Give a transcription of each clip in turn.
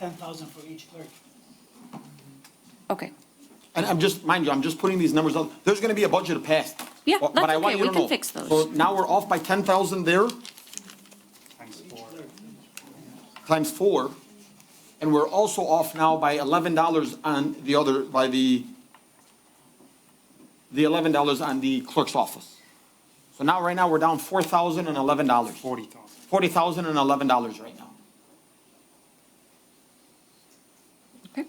ten thousand for each clerk. Okay. And I'm just, mind you, I'm just putting these numbers out, there's gonna be a budget passed. Yeah, But- that's but I want okay. you to We can know. fix those. So now we're off by ten thousand there. Times four, and we're also off now by eleven dollars on the other, by the, the eleven dollars on the clerk's office. So now, right now, we're down four thousand and eleven dollars. Forty thousand. Forty thousand and eleven dollars right now. Okay.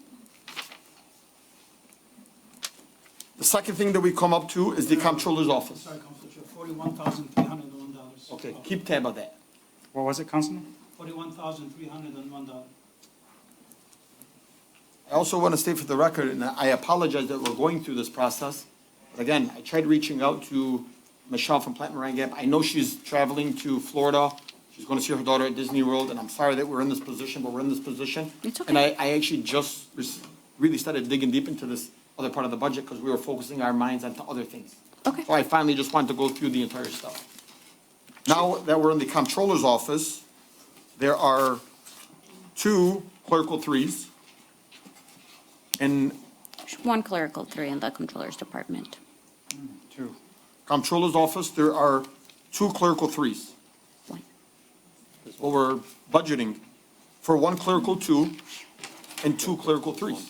The second thing that we come up to is the comptroller's office. Sorry, Councilor, Chair, forty-one thousand three hundred and one dollars. Uh, Okay, keep tab of that. What was it, Councilman? Forty-one thousand three hundred and one dollar. I also want to state for the record, and I apologize that we're going through this process. But again, I tried reaching out to Michelle from Plant Moran Gap. I know she's traveling to Florida. She's going to see her daughter at Disney World, and I'm sorry that we're in this position, but we're in this position. It's okay. And I, I actually just res- really started digging deep into this other part of the budget because we were focusing our minds onto other things. Okay. So Oh, I finally just wanted to go through the entire stuff. Now that we're in the comptroller's office, there are two clerical threes. And One clerical, three in the Controller's Department. Two. comptroller's office, there are two clerical threes. One. What we're budgeting for one clerical two and two clerical threes.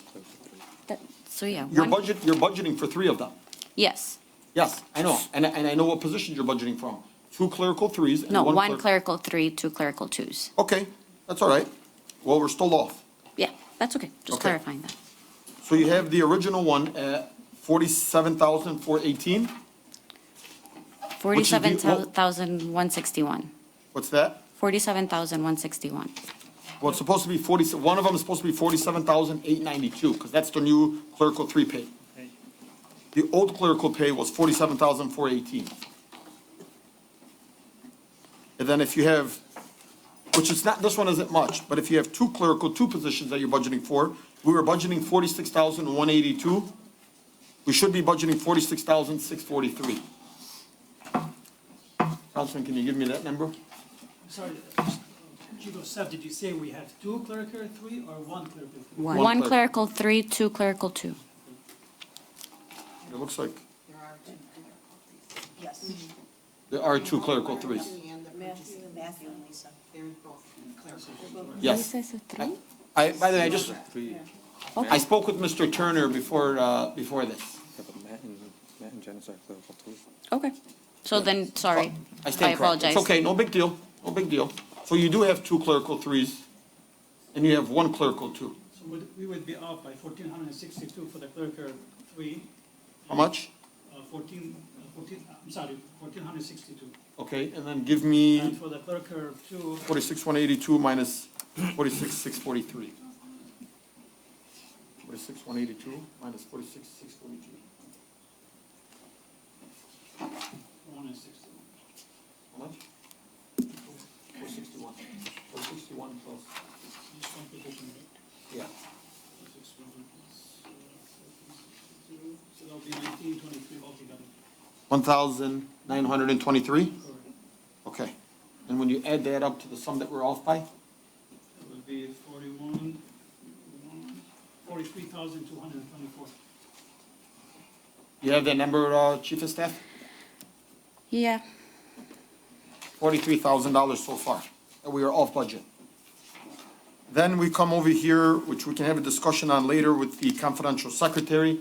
That- So, yeah. Your one- budget, you're budgeting for three of them. Yes. Yes, I know, and, and I know what positions you're budgeting from. Two clerical threes and No, one one clerical, clerical. three, two clerical twos. Okay, that's all right. Well, we're still off. Yeah, that's okay. Just Okay. clarifying that. So you have the original one at forty-seven thousand four eighteen. is the- Forty-seven thousand one sixty-one. What's that? Forty-seven thousand one sixty-one. Well, it's supposed to be forty, one of them is supposed to be forty-seven thousand eight ninety-two, because that's the new clerical three pay. The old clerical pay was forty-seven thousand four eighteen. And then if you have, which is not, this one isn't much, but if you have two clerical, two positions that you're budgeting for, we were budgeting forty-six thousand one eighty-two. We should be budgeting forty-six thousand six forty-three. Councilman, can you give me that number? Sorry, uh, Chief of Staff, did you say we have two clerical three or one clerical three? One. One One cler- clerical, three, two clerical, two. It looks like There are two clerical threes. Yes. there are two clerical threes. And the purchasing, Matthew and Lisa, they're both clerical. Yes. This is a three? I, by the way, I just, I spoke with Mr. Turner before, uh, before this. Yeah, but Matt and, Matt and Janice are clerical too. Okay. So then, sorry. I stand corrected. apologize. It's okay, no big deal, no big deal. So you do have two clerical threes, and you have one clerical two. So would- we would be off by fourteen hundred and sixty-two for the clerical three, How much? uh, fourteen, uh, fourteen, I'm sorry, fourteen hundred and sixty-two. Okay, and then give And me for the clerical two, forty-six, one eighty-two minus forty-six, six forty-three. Forty-six, one eighty-two minus forty-six, six forty-two. one and sixty. How much? Four sixty-one. Four sixty-one plus, Just one position, right? yeah. uh, So that'll be nineteen twenty-three altogether. One thousand, nine hundred and twenty-three? Correct. Okay. And when you add that up to the sum that we're off by? That would be forty-one, forty-three thousand two hundred and twenty-four. You have that number, uh, Chief of Staff? Yeah. Forty-three thousand dollars so far, and we are off budget. Then we come over here, which we can have a discussion on later with the confidential secretary,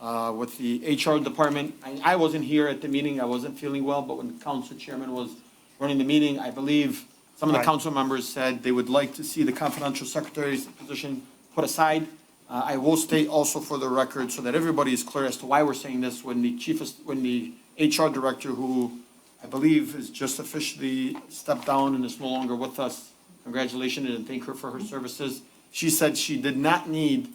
uh, with the HR department. I, I wasn't here at the meeting, I wasn't feeling well, but when the council chairman was running the meeting, I believe some of the Right. council members said they would like to see the confidential secretary's position put aside. Uh, I will state also for the record, so that everybody is clear as to why we're saying this, when the chief, of- when the HR director, who I believe has just officially stepped down and is no longer with us, congratulations and thank her for her services. She said she did not need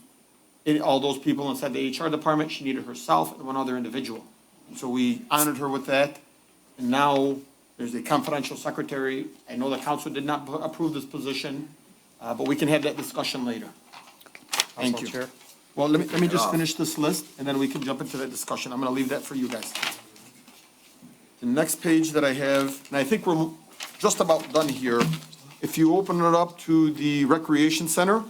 it- all those people inside the HR department, she needed herself and one other individual. And so we honored her with that, and now there's a confidential secretary. I know the council did not approve this position, uh, but we can have that discussion later. Thank Council you. Chair. Well, let me, let me just finish this list, and then we can jump into that discussion. I'm gonna leave that for you guys. The next page that I have, and I think we're just about done here. If you open it up to the recreation center,